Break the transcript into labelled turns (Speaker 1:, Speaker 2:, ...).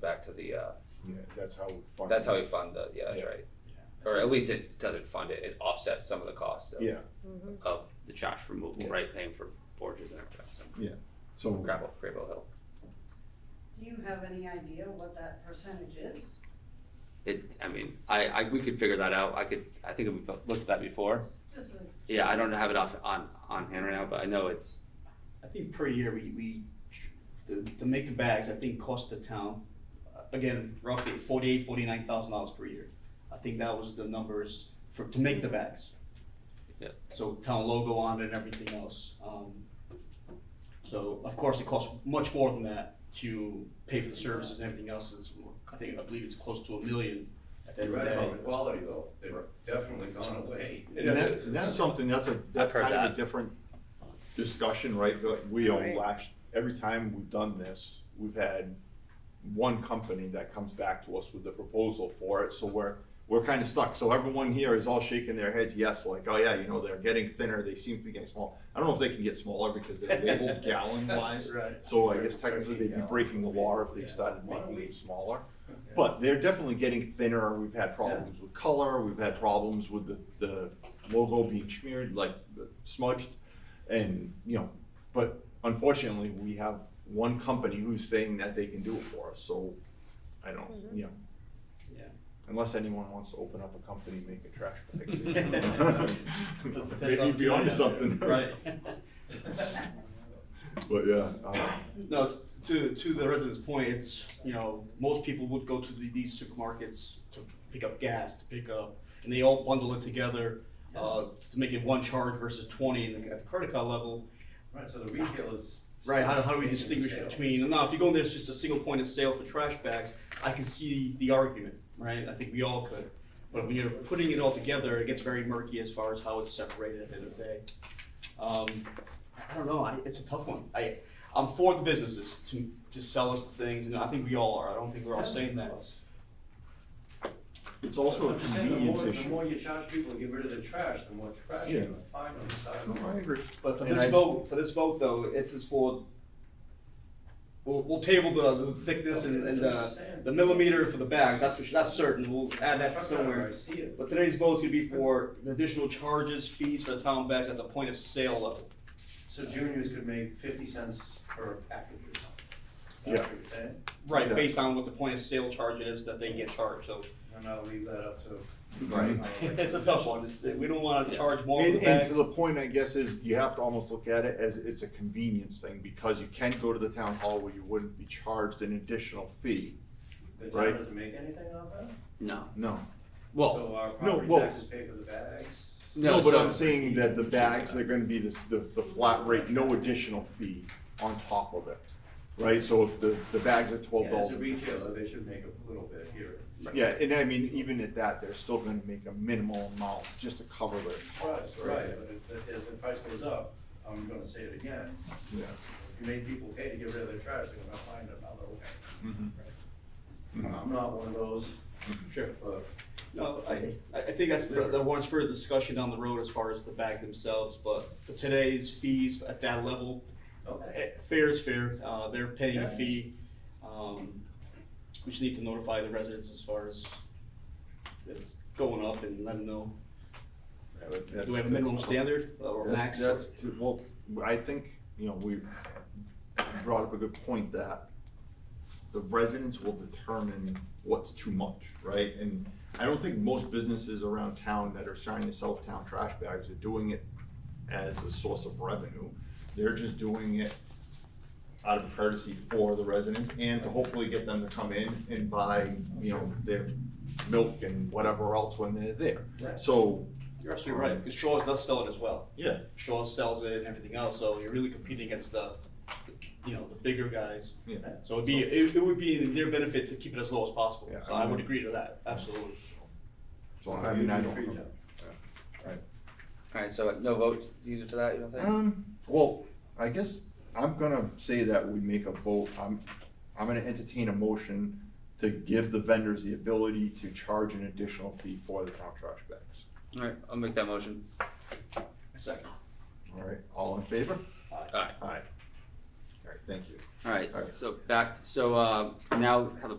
Speaker 1: back to the, uh,
Speaker 2: Yeah, that's how we fund.
Speaker 1: that's how
Speaker 2: it.
Speaker 1: we fund the, yeah, that's
Speaker 2: Yeah.
Speaker 1: right. Or at least it doesn't fund it, it offsets some of the costs of,
Speaker 2: Yeah,
Speaker 1: of the trash removal,
Speaker 2: Yeah.
Speaker 1: right, paying for porches and everything, so.
Speaker 2: so
Speaker 1: Gravel, Gravel Hill.
Speaker 3: Do you have any idea what that percentage is?
Speaker 1: It, I mean, I, I, we could figure that out, I could, I think we've looked at that before.
Speaker 3: Just a
Speaker 1: Yeah, I don't have it off, on, on hand right now, but I know it's,
Speaker 4: I think per year, we, we, to, to make the bags, I think cost the town, uh, again, roughly forty-eight, forty-nine thousand dollars per year. I think that was the numbers for, to make the bags.
Speaker 1: Yeah.
Speaker 4: So town logo on it and everything else, um, so of course, it costs much more than that to pay for the services and everything else, it's, I think, I believe it's close to a million at the
Speaker 5: They
Speaker 4: end of
Speaker 5: read
Speaker 4: the day.
Speaker 5: about the quality though, they've definitely gone away.
Speaker 2: and that, that's something, that's a, that's
Speaker 1: heard
Speaker 2: kind of a
Speaker 1: that.
Speaker 2: different discussion, right? But we all
Speaker 3: Right.
Speaker 2: last, every time we've done this, we've had one company that comes back to us with the proposal for it, so we're, we're kind of stuck. So everyone here is all shaking their heads, yes, like, oh yeah, you know, they're getting thinner, they seem to be getting small. I don't know if they can get smaller because they're labeled gallon wise.
Speaker 4: Right.
Speaker 2: So I guess technically they'd be breaking the law if they started making them smaller. But they're definitely getting thinner, we've had problems with color, we've had problems with the, the logo being smeared, like smudged. And, you know, but unfortunately, we have one company who's saying that they can do it for us, so I don't, you know.
Speaker 4: Yeah.
Speaker 2: Unless anyone wants to open up a company, make a trash bag. Maybe
Speaker 4: Potential
Speaker 2: you'd be onto
Speaker 4: opportunity out
Speaker 2: something.
Speaker 4: there. Right.
Speaker 2: But yeah, uh,
Speaker 4: No, s- to, to the resident's point, it's, you know, most people would go to the- these supermarkets to pick up gas, to pick up, and they all bundle it together, uh, to make it one charge versus twenty in the- at the credit card level.
Speaker 5: Right, so the retail is.
Speaker 4: Right, how, how do we distinguish
Speaker 5: Retail.
Speaker 4: between, now, if you go in there, it's just a single point of sale for trash bags, I can see the argument, right? I think we all could. But when you're putting it all together, it gets very murky as far as how it's separated at the end of the day. Um, I don't know, I, it's a tough one. I, I'm for the businesses to, to sell us the things, and I think we all are, I don't think we're all saying that.
Speaker 2: it's also a
Speaker 5: I'm just saying, the more-
Speaker 2: convenience
Speaker 5: The
Speaker 2: issue.
Speaker 5: more you charge people to get rid of the trash, the more trash
Speaker 2: Yeah.
Speaker 5: you're gonna find on the side of the road.
Speaker 2: agree.
Speaker 4: But for
Speaker 2: And
Speaker 4: this
Speaker 2: I-
Speaker 4: vote, for this vote though, it's just for, we'll, we'll table the, the thickness and, and,
Speaker 5: That's what
Speaker 4: uh,
Speaker 5: I'm saying.
Speaker 4: the millimeter for the bags, that's for sure, that's certain, we'll add that
Speaker 5: Truck driver,
Speaker 4: somewhere.
Speaker 5: I see it.
Speaker 4: But today's vote's gonna be for the additional charges, fees for the town bags at the point of sale level.
Speaker 5: So juniors could make fifty cents per package or something.
Speaker 2: Yeah.
Speaker 5: That's what you're saying?
Speaker 4: Right, based on what the point of sale charge it is that they get charged, so.
Speaker 5: And I'll leave that up to.
Speaker 2: Right.
Speaker 4: It's a tough one, it's, we don't wanna
Speaker 1: Yeah.
Speaker 4: charge more for
Speaker 2: And,
Speaker 4: the
Speaker 2: and
Speaker 4: bags.
Speaker 2: to the point, I guess, is you have to almost look at it as it's a convenience thing, because you can go to the town hall where you wouldn't be charged an additional fee.
Speaker 5: The
Speaker 2: Right.
Speaker 5: town doesn't make anything off that?
Speaker 1: no,
Speaker 2: No.
Speaker 1: well,
Speaker 5: So our
Speaker 2: no,
Speaker 5: property
Speaker 2: well-
Speaker 5: taxes pay for the bags?
Speaker 1: no.
Speaker 2: No, but
Speaker 1: so-
Speaker 2: I'm saying that the
Speaker 1: Should say
Speaker 2: bags
Speaker 1: that.
Speaker 2: are gonna be the, the, the flat rate, no additional fee on top of it, right? So if the, the bags are twelve
Speaker 5: Yeah,
Speaker 2: dollars.
Speaker 5: As a retailer, they should make a little bit here.
Speaker 2: Yeah, and I mean, even at that, they're still gonna make a minimal amount just to cover their
Speaker 5: Right,
Speaker 2: costs, right?
Speaker 5: right, but if, if the price goes up, I'm gonna say it again,
Speaker 2: Yeah.
Speaker 5: if you make people pay to get rid of their trash, they're gonna find another way.
Speaker 2: Mhm. Mm-hmm.
Speaker 5: I'm not one of those,
Speaker 4: Sure.
Speaker 5: but
Speaker 4: No, I, I I think that's, for- that warrants further discussion down the road as far as the bags themselves, but for today's fees at that level,
Speaker 5: Okay.
Speaker 4: Eh, Fair is fair, uh, they're paying a fee, um, we just need to notify the residents as far as it's going up and let them know. Do we have a minimum standard or
Speaker 2: That's,
Speaker 4: max?
Speaker 2: that's, too- well, I think, you know, we brought up a good point that the residents will determine what's too much, right? And I don't think most businesses around town that are trying to sell town trash bags are doing it as a source of revenue. They're just doing it out of courtesy for the residents and to hopefully get them to come in and buy, you know, their milk and whatever else when they're there.
Speaker 5: Right.
Speaker 2: So,
Speaker 4: You're absolutely right, because Shaw's does sell it as well.
Speaker 2: yeah,
Speaker 4: Shaw's sells it and everything else, so you're really competing against the, you know, the bigger guys.
Speaker 2: yeah.
Speaker 4: So it'd be, it, it would be in their benefit to keep it as low as possible,
Speaker 2: Yeah,
Speaker 4: so
Speaker 2: I
Speaker 4: I would
Speaker 2: mean-
Speaker 4: agree to that, absolutely.
Speaker 2: So I mean, I don't know.
Speaker 1: Alright, so no vote needed for that, you don't think?
Speaker 2: Um, well, I guess I'm gonna say that we make a vote, I'm, I'm gonna entertain a motion to give the vendors the ability to charge an additional fee for the town trash bags.
Speaker 1: Alright, I'll make that motion.
Speaker 4: Second.
Speaker 2: Alright, all in favor?
Speaker 1: Aye.
Speaker 2: Aye. Alright, thank you.
Speaker 1: Alright,
Speaker 2: Okay.
Speaker 1: so back, so, um, now have a